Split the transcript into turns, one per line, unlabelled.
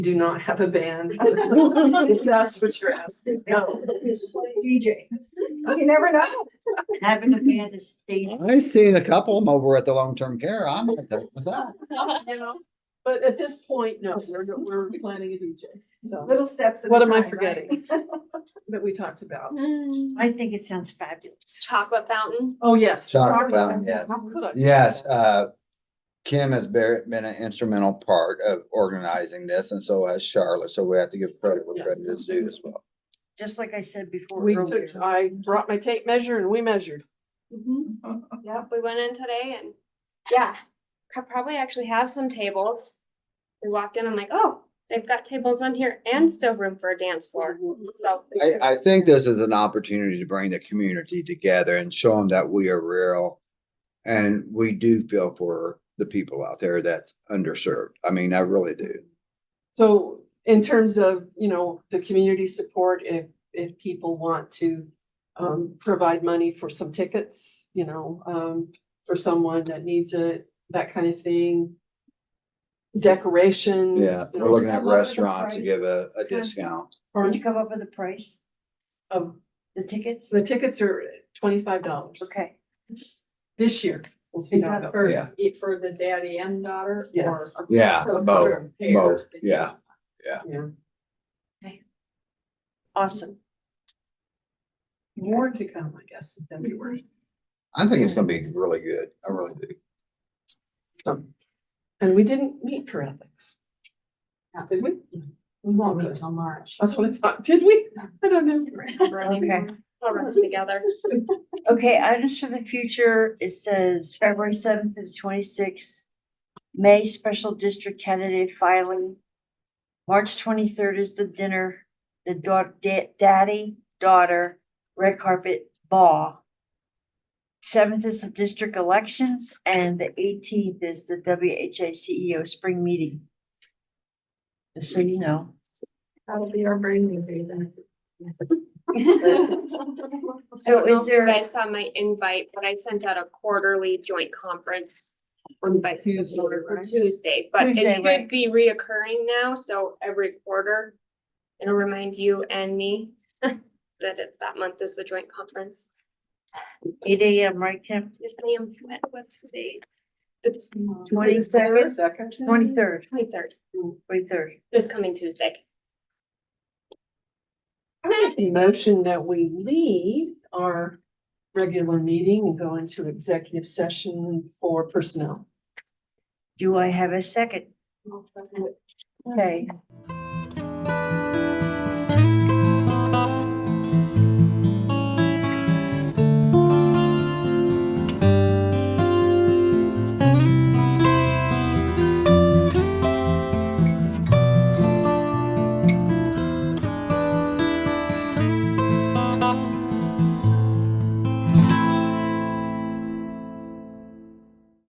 do not have a band. If that's what you're asking. No.
DJ. You never know.
Having a band is state.
I've seen a couple of them over at the long-term care. I'm like, what's that?
You know, But at this point, no, we're, we're planning a DJ, so.
Little steps. at a
What am I
time, right?
forgetting? That we talked about.
I think it sounds fabulous.
Chocolate fountain.
Oh, yes.
Chocolate fountain, yeah.
How could I?
Yes, uh, Kim has very, been an instrumental part of organizing this and so has Charlotte. So we have to give credit where credit is due as well.
Just like I said before
We,
earlier.
I brought my tape measure and we measured.
Uh-huh.
Yep, we went in today and, yeah, I probably actually have some tables. We walked in, I'm like, oh, they've got tables on here and still room for a dance floor, so.
I, I think this is an opportunity to bring the community together and show them that we are real. And we do feel for the people out there that's underserved. I mean, I really do.
So in terms of, you know, the community support, if, if people want to um, provide money for some tickets, you know, um, for someone that needs it, that kind of thing. Decorations.
Yeah,
you
we're
know,
looking at restaurants to give a, a discount.
Did
orange-
you come up with a price?
um,
The tickets?
so The tickets are twenty-five dollars
Okay.
this year. We'll see
Is
how
that
that
for-
goes.
Yeah,
For the daddy and daughter.
Yes.
yeah, both, both, yeah.
Yeah.
Awesome.
More to come, I guess, in February.
I think it's gonna be really good. I really do.
Um, And we didn't meet for ethics. Did we?
We won't be till March.
That's what I thought. Did we? I don't know.
Okay.
All runs together.
Okay, items for the future, it says February seventh to the twenty-sixth. May special district candidate filing. March twenty-third is the dinner, the da- da- daddy, daughter, red carpet ball. Seventh is the district elections and the eighteenth is the WHA CEO E spring meeting. Just so you know.
That'll be our brain meeting then.
I don't
So
know
is
if you
there?
guys saw my invite, but I sent out a quarterly joint conference. invite to the
Tuesday,
board for
right?
Tuesday, but it
Tuesday,
should
right.
be reoccurring now, so every quarter. It'll remind you and me that it's that month is the joint conference.
Eight AM, right, Kim?
Yes, ma'am. What- What's the date? The
Twenty-second,
Second.
twenty-third,
twenty-third,
twenty-third.
this coming Tuesday.
I make a motion that we leave our regular meeting and go into executive session for personnel.
Do I have a second? Okay,